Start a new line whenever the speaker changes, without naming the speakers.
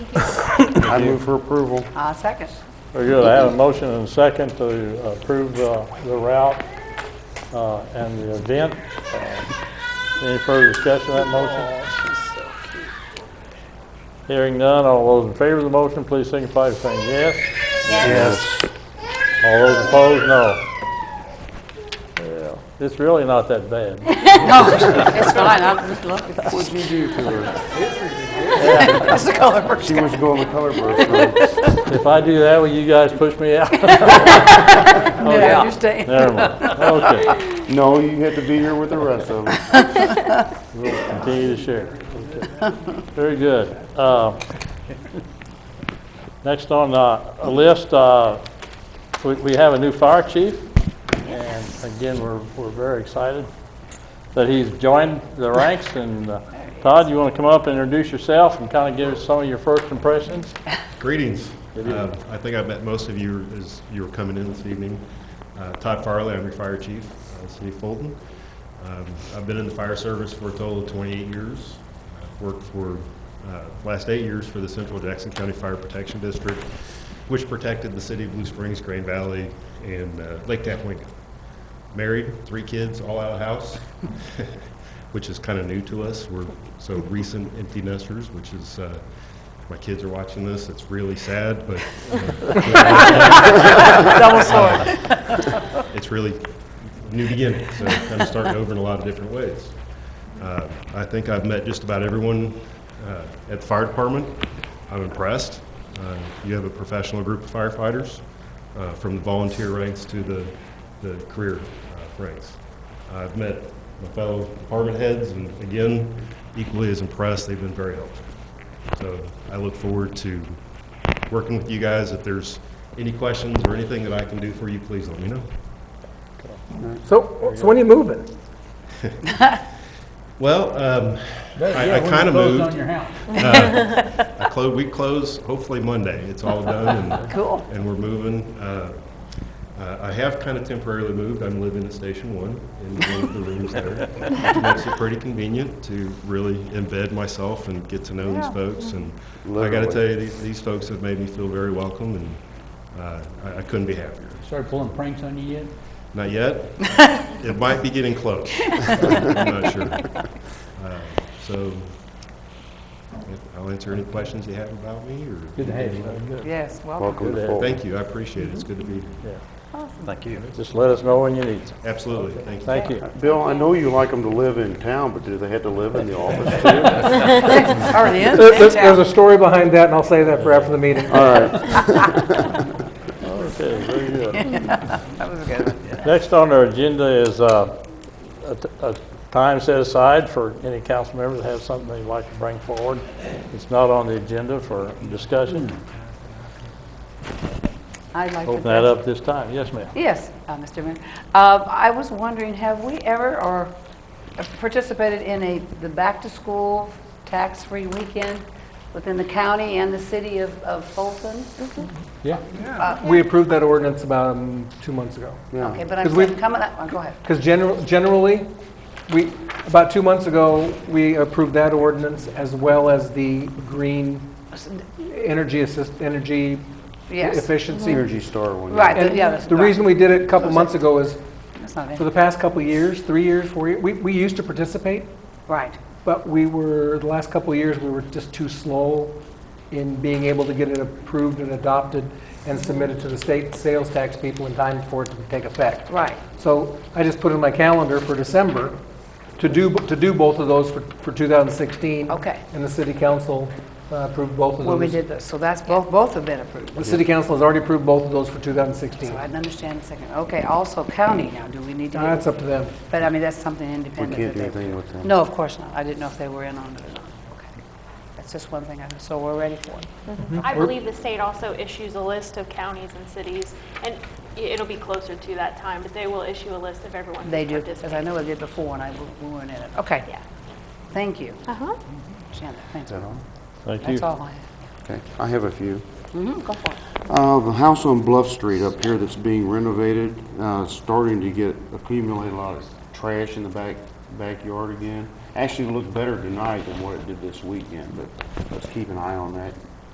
I move for approval.
I'll second.
Very good. I have a motion and a second to approve uh, the route uh, and the event. Uh, Any further discussion of that motion? Hearing none, all those in favor of the motion, please signify by saying yes.
Yes.
All those opposed, no. Yeah, It's really not that bad.
No, it's fine, I'll just look.
What'd you do to her?
That's the color
She wants to go on the color burst road.
If I do that, will you guys push me out?
I understand.
Never mind. Okay,
Oh,
No, you have to be here with the rest of them.
we'll continue to share. Okay. Very good. Uh, Next on uh, the list, uh, we- we have a new fire chief. And again, we're we're very excited that he's joined the ranks. And uh, Todd, you want to come up and introduce yourself and kind of give us some of your first impressions?
Greetings. Uh, I think I met most of you as you were coming in this evening. Uh, Todd Farley, I'm your fire chief, uh, City of Fulton. Um, I've been in the fire service for a total of 28 years. I've Worked for, uh, last eight years for the Central Jackson County Fire Protection District, which protected the city of Blue Springs, Grand Valley, and uh, Lake Tappewinkle. Married, three kids, all out of the house, which is kind of new to us. We're so recent empty nesters, which is, uh, my kids are watching this, it's really sad, but uh,
Double sword.
uh, it's really new beginning, so kind of starting over in a lot of different ways. Uh, I think I've met just about everyone uh, at the fire department. I'm impressed. Uh, You have a professional group of firefighters, uh, from the volunteer ranks to the, the career uh, ranks. I've met my fellow department heads, and again, equally as impressed, they've been very helpful. So I look forward to working with you guys. If there's any questions or anything that I can do for you, please let me know.
So, so when are you moving?
Well, um, I, I kind of moved. Uh, I clo- we close hopefully Monday. It's all done and.
Cool.
And we're moving. uh, uh, I have kind of temporarily moved. I'm living at Station One in one of the rooms there. It Makes it pretty convenient to really embed myself and get to know these folks. And I got to
Literally.
tell you, these, these folks have made me feel very welcome and, uh, I, I couldn't be happier.
Started pulling pranks on you yet?
Not yet. It might be getting close. I'm not sure. Uh, So if- I'll answer any questions you have about me or.
Good to have you.
Yes, welcome.
Welcome to Fulton.
Thank you. I appreciate it. It's good to be here.
Just let us know when you need.
Absolutely. Thank you.
Thank you.
Bill, I know you like them to live in town, but do they have to live in the office too?
Or the end,
There- There's
end
there's
town.
a story behind that, and I'll say that for after the meeting.
All right.
Okay, very good.
That was good.
Next on our agenda is uh, a t- a time set aside for any council member that has something they'd like to bring forward. It's not on the agenda for discussion.
I'd like to.
Open that up this time. Yes, ma'am.
Yes, uh, Mr. Mayor. Uh, I was wondering, have we ever or uh, participated in a, the back-to-school tax-free weekend within the county and the city of of Fulton?
We approved that ordinance about um, two months ago.
Okay, but I'm
'Cause we've-
saying coming up, oh, go ahead.
Because generally, we, about two months ago, we approved that ordinance as well as the green energy assist, energy
Yes.
efficiency.
Energy Star one.
Right,
And
yeah, that's.
the
right.
reason we did it a couple months ago is,
That's not
for
it.
the past couple of years, three years, four years, we, we used to participate,
Right.
But we were, the last couple of years, we were just too slow in being able to get it approved and adopted and submitted to the state sales tax people in time for it to take effect.
Right.
So I just put in my calendar for December to do, to do both of those for, for 2016.
Okay.
And the city council uh, approved both of those.
Well, we did this, so that's, both, both have been approved.
The city council has already approved both of those for 2016.
So I didn't understand the second. Okay, also county now, do we need to?
Now, That's up to them.
But I mean, that's something independent.
can't
that
do
they-
anything with them.
No, of course not. I didn't know if they were in on it or not. Okay. That's just one thing I, so we're ready for it.
I believe the state also issues a list of counties and cities, and i- it'll be closer to that time, but they will issue a list of everyone who
They do, because I
participated.
know they did before and I, we weren't in it. Okay.
Yeah.
Thank you,
Uh-huh.
Shanda. Thank
Is that
you.
all?
Thank you.
That's all I have.
Okay, I have a few.
Mhm, Go for it.
Uh, The house on Bluff Street up here that's being renovated, uh, starting to get, accumulate a lot of trash in the back, backyard again. Actually looked better tonight than what it did this weekend, but let's keep an eye on that.